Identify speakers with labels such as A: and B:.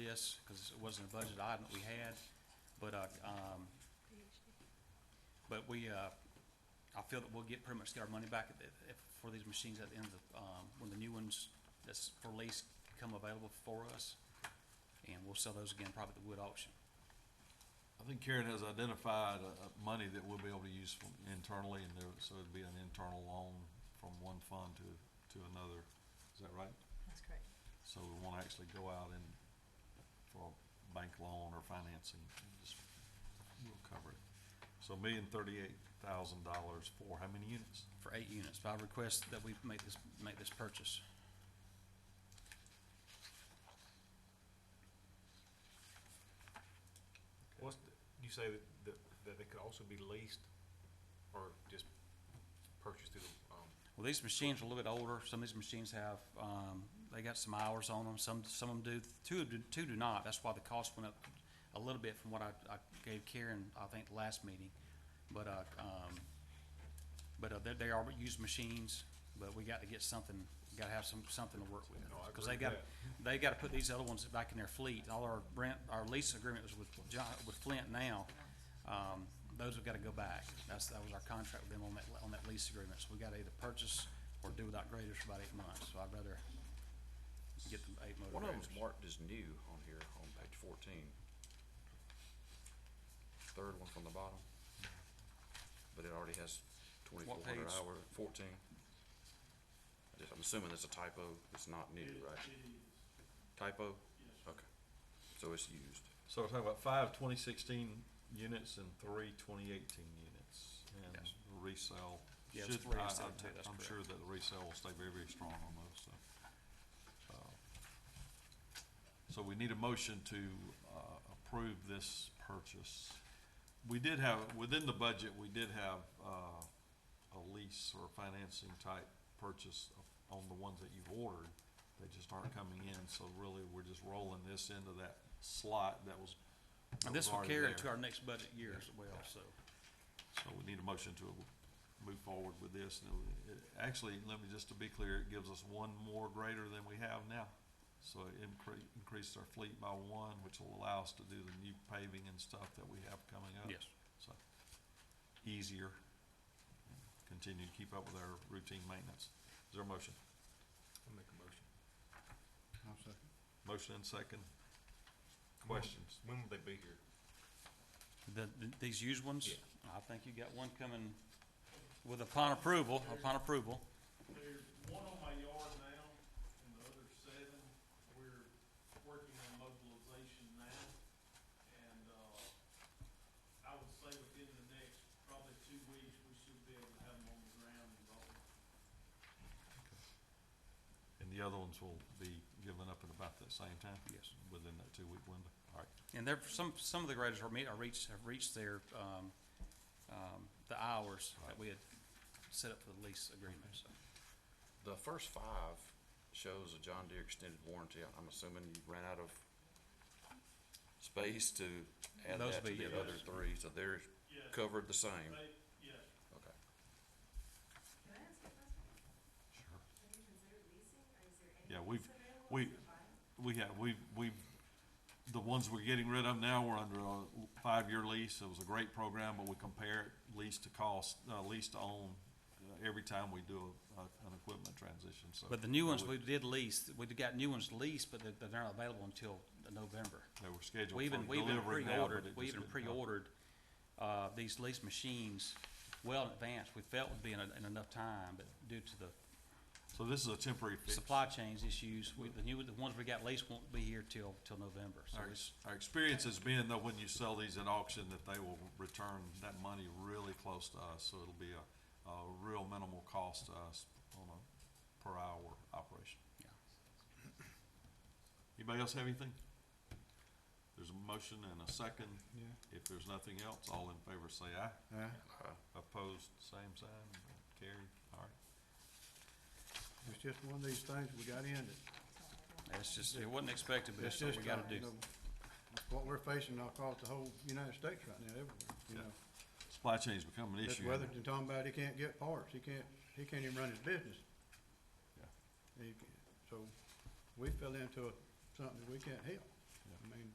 A: this, because it wasn't a budget item that we had, but, uh, um, but we, uh, I feel that we'll get, pretty much get our money back at the- if- for these machines at the end of, the, um, when the new ones that's for lease come available for us, and we'll sell those again probably at the wood auction.
B: I think Karen has identified, uh, uh, money that we'll be able to use from internally, and there, so it'd be an internal loan from one fund to, to another, is that right?
C: That's correct.
B: So we won't actually go out and, for a bank loan or financing, and just, we'll cover it. So million thirty-eight thousand dollars for how many units?
A: for eight units, but I request that we make this, make this purchase.
D: What's, the- you say that, that, that they could also be leased or just purchased through, the, um,
A: Well, these machines are a little bit older, some of these machines have, um, they got some hours on them, some, some of them do, two, do- two do not, that's why the cost went up a little bit from what I, I gave Karen, I think, the last meeting, but, uh, um, but, uh, they, they are used machines, but we got to get something, gotta have some, something to work with.
D: No, I
A: Cause
D: agree
A: they
D: with
A: got, they gotta put these other ones back in their fleet, all our rent, our lease agreement was with John, with Flint now, um, those have gotta go back. That's, that was our contract with them on that, on that lease agreement, so we gotta either purchase or do without graders for about eight months, so I'd rather get the eight motor
E: One of
A: graders.
E: them's marked as new on here, on page fourteen. Third one from the bottom. But it already has twenty-four hundred
A: page?
E: hour, fourteen. I just- I'm assuming there's a typo, it's not new, right? Typo? Okay, so it's used.
B: So we're talking about five 2016 units and three 2018 units, and
A: Yes.
B: resale.
A: Yeah, it's
B: should-
A: three
B: I-
A: instead of
B: I'm-
A: two, that's
B: I'm
A: correct.
B: sure that the resale will stay very, very strong on those, so. uh, So we need a motion to, uh, approve this purchase. We did have, within the budget, we did have, uh, a lease or financing type purchase on the ones that you've ordered. They just aren't coming in, so really, we're just rolling this into that slot that was. that
A: And
B: was
A: this will
B: already
A: carry
B: there.
A: into our next budget year as well, so.
B: So we need a motion to move forward with this. And it- it- Actually, let me, just to be clear, it gives us one more greater than we have now. So it incre- increased our fleet by one, which will allow us to do the new paving and stuff that we have coming up.
A: Yes,
B: So easier, continue to keep up with our routine maintenance. Is there a motion?
D: I'll make a motion.
B: Motion and second.
D: When-
B: Questions?
D: When will they be here?
A: the, the- these used ones, I think you got one coming with upon approval, upon approval.
F: There's one on my yard now, and the other seven, we're working on mobilization now. And, uh, I would say within the next probably two weeks, we should be able to have them on the ground and going.
B: And the other ones will be given up at about that same time?
A: Yes.
B: Within that two-week window? All right.
A: And there, some, some of the graders are meet, are reached, have reached their, um, um, the hours that we had set up for the lease agreement, so.
E: The first five shows a John Deere extended warranty. I'm assuming you ran out of space to add
A: Those
E: that to
A: be-
E: the
A: yeah,
E: other
F: those-
E: three, so they're
F: Yes,
E: covered the same.
F: they, yes,
E: Okay.
G: Can I ask a question?
B: Sure.
G: Have you considered leasing, or is there any?
B: Yeah, we've-
G: lease available
B: we-
G: for buying?
B: We have, we've, we've, the ones we're getting rid of now, we're under a five-year lease. It was a great program, but we compare it lease to cost, uh, lease to own uh, every time we do a, a- an equipment transition, so.
A: But the new ones, we did lease, we got new ones leased, but they're, they're not available until November.
B: They were scheduled
A: We
B: for
A: even, we even
B: delivery now, but
A: pre-ordered,
B: it
A: we
B: just
A: even
B: didn't happen.
A: pre-ordered, uh, these lease machines well in advance. We felt would be in, a- in enough time, but due to the
B: So this is a temporary fix.
A: supply chains issues, we, the new, the ones we got leased won't be here till, till November, so
B: Our,
A: it's.
B: our experience has been though, when you sell these at auction, that they will return that money really close to us, so it'll be a, a real minimal cost to us on a per hour operation.
A: Yeah.
B: Anybody else have anything? There's a motion and a second. If there's nothing else, all in favor say aye.
E: Aye.
B: Opposed, same sign, carried, all right.
H: It's just one of these things we got in it.
A: It's just, it wasn't expected, but
H: It's
A: it's what
H: just,
A: we gotta
H: uh,
A: do.
H: you know, What we're facing across the whole United States right now, everywhere, you know.
B: Supply chain's become an
H: This
B: issue.
H: Weatherton talking about he can't get parts, he can't, he can't even run his business.
B: Yeah.
H: He can't- So we fell into a- something that we can't help.